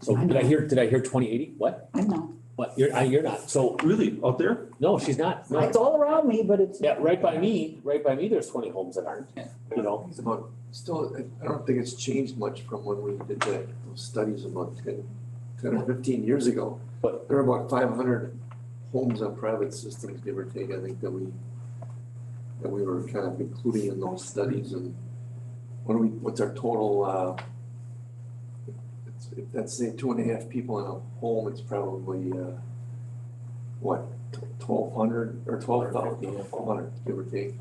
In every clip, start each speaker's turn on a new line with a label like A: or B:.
A: So did I hear, did I hear twenty eighty? What?
B: I'm not.
A: What? You're, I, you're not. So,
C: Really, out there?
A: no, she's not. No.
B: It's all around me, but it's.
A: Yeah, right by me, right by me, there's twenty homes that aren't, you know?
D: It's about, still, I- I don't think it's changed much from when we did that, those studies about ten, ten or fifteen years ago.
A: But-
D: There are about five hundred homes on private systems, give or take, I think that we, that we were kind of including in those studies and what do we, what's our total, uh, it's- if that's say two and a half people in a home, it's probably, uh, what, twelve hundred or twelve thousand, twelve hundred, give or take.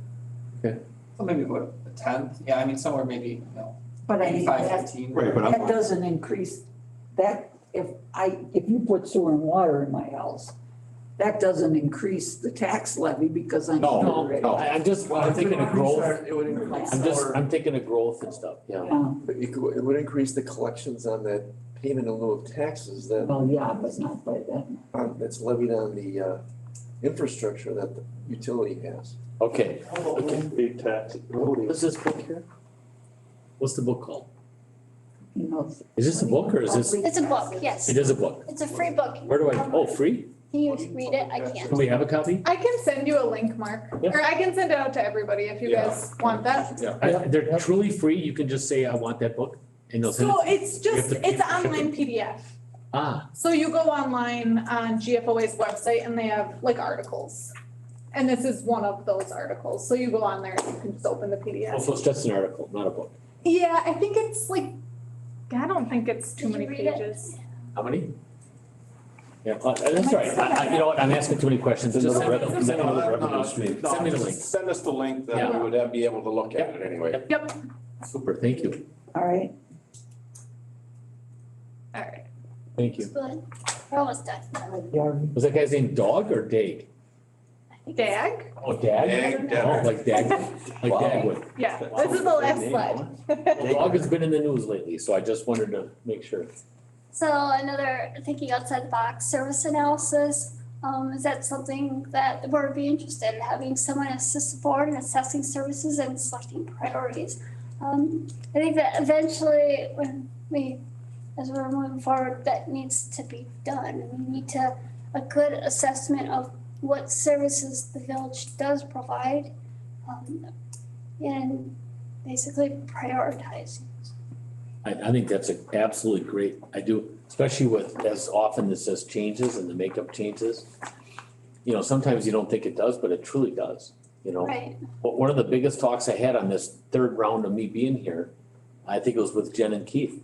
E: So maybe what, a tenth, yeah, I mean, somewhere maybe, you know,
B: But I
E: maybe
B: mean,
E: five,
B: that,
E: fifteen.
C: Right, but
B: that
C: I'm,
B: doesn't increase, that, if I, if you put sewer and water in my house, that doesn't increase the tax levy because I'm.
A: No,
B: already-
A: no, I, I'm just, I'm thinking of growth.
D: It would increase
A: I'm just,
D: our-
A: I'm thinking of growth and stuff, yeah.
B: Yeah,
D: But It could- it would increase the collections on that payment in lieu of taxes that,
B: well, yeah, but not by that.
D: on- that's levied on the uh, infrastructure that the utility has.
A: Okay,
C: big tax, voting.
A: what's this book here? What's the book called?
B: You know, it's-
A: Is this a book or is this,
F: It's a book, yes.
A: it is a book?
F: It's a free book.
A: Where do I, oh, free?
F: Can you read it? I can't.
A: Do we have a copy?
G: I can send you a link, Mark,
A: Yeah.
G: or I can send it out to everybody if you
C: Yeah.
G: guys want that.
A: I- They're truly free. You can just say, I want that book and they'll send
G: So
A: it.
G: it's
A: You have
G: just,
A: to
G: it's
A: pay for
G: online PDF.
A: Ah,
G: So you go online on GFOA's website and they have like articles. And this is one of those articles. So you go on there and you can just open the
A: oh,
G: PDF.
A: so it's just an article, not a book.
G: Yeah, I think it's like, I don't think it's too
F: Did
G: many
F: you read it?
G: pages.
A: How many? Yeah, uh, that's all right. I, I, you know what? I'm asking too many questions. Just send me the- send me the- Send me the link.
H: Send us the link, then we
A: Yeah.
H: would have- be able to look at it anyway.
G: Yep,
A: Super, thank you.
B: All right,
G: all right.
A: Thank
F: It's
A: you.
F: good. We're almost done.
A: Was that guy's name Dog or Dag?
F: I think it's-
G: DAG?
A: Oh, Dag?
H: Dag,
A: Oh,
H: Dag.
A: like Dag, like Dagwood.
G: Yeah, this is the last slide.
A: Well, Dog has been in the news lately, so I just wanted to make sure.
F: So another thinking outside the box, service analysis. Um, is that something that we would be interested in having someone assist the board in assessing services and selecting priorities? Um, I think that eventually when we, as we're moving forward, that needs to be done. We need to, a good assessment of what services the village does provide. Um, and basically prioritizing.
A: I, I think that's a- absolutely great. I do, especially with, as often this says changes and the makeup changes. You know, sometimes you don't think it does, but it truly does, you know?
F: Right.
A: But one of the biggest talks I had on this third round of me being here, I think it was with Jen and Keith.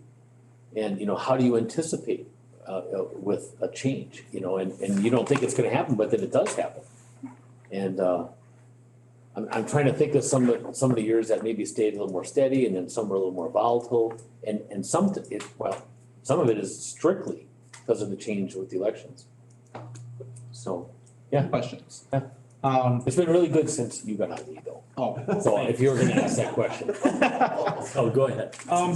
A: And, you know, how do you anticipate uh, uh, with a change, you know, and, and you don't think it's gonna happen, but then it does happen. And, uh, I'm, I'm trying to think of some, of- some of the years that maybe stayed a little more steady and then some were a little more volatile. And, and some, t- it, well, some of it is strictly because of the change with the elections. So
E: Questions?
A: Yeah.
E: Um,
A: it's been really good since you got out of the though.
E: oh.
A: So if you were gonna ask that question. Oh, go ahead.
E: Um,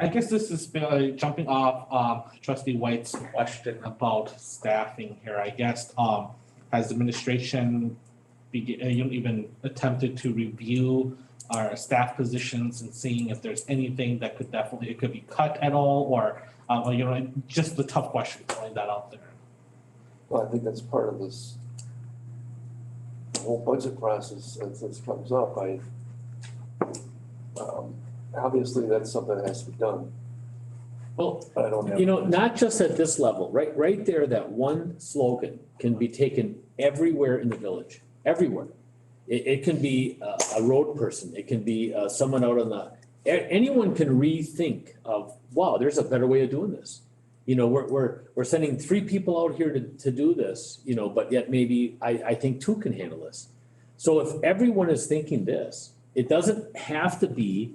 E: I guess this is uh, jumping off um, trustee White's question about staffing here, I guess. Um, has administration begin, uh, you know, even attempted to review our staff positions and seeing if there's anything that could definitely, it could be cut at all or, um, or, you know, just the tough question, throwing that out there.
D: Well, I think that's part of this whole budget process as this comes up. I, um, obviously, that's something that has to be done,
A: Well,
D: but I don't have.
A: you know, not just at this level, right, right there, that one slogan can be taken everywhere in the village, everywhere. It, it can be a, a road person, it can be, uh, someone out on the, a- anyone can rethink of, wow, there's a better way of doing this. You know, we're, we're, we're sending three people out here to, to do this, you know, but yet maybe I, I think two can handle this. So if everyone is thinking this, it doesn't have to be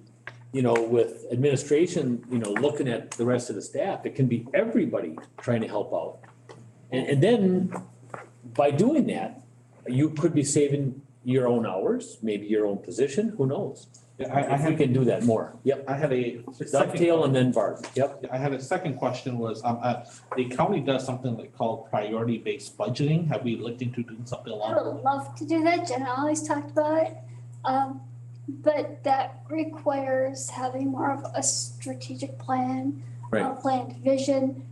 A: you know, with administration, you know, looking at the rest of the staff, it can be everybody trying to help out. And, and then by doing that, you could be saving your own hours, maybe your own position, who knows?
E: I, I
A: If we
E: had,
A: can do that more, yep.
E: I had a.
A: Dovetail and then bargain, yep.
E: I had a second question was, um, uh, the county does something like called priority-based budgeting. Have we looked into doing something along?
F: I would love to do that, Jen always talked about it. Um, but that requires having more of a strategic plan.
A: Right.
F: A planned vision,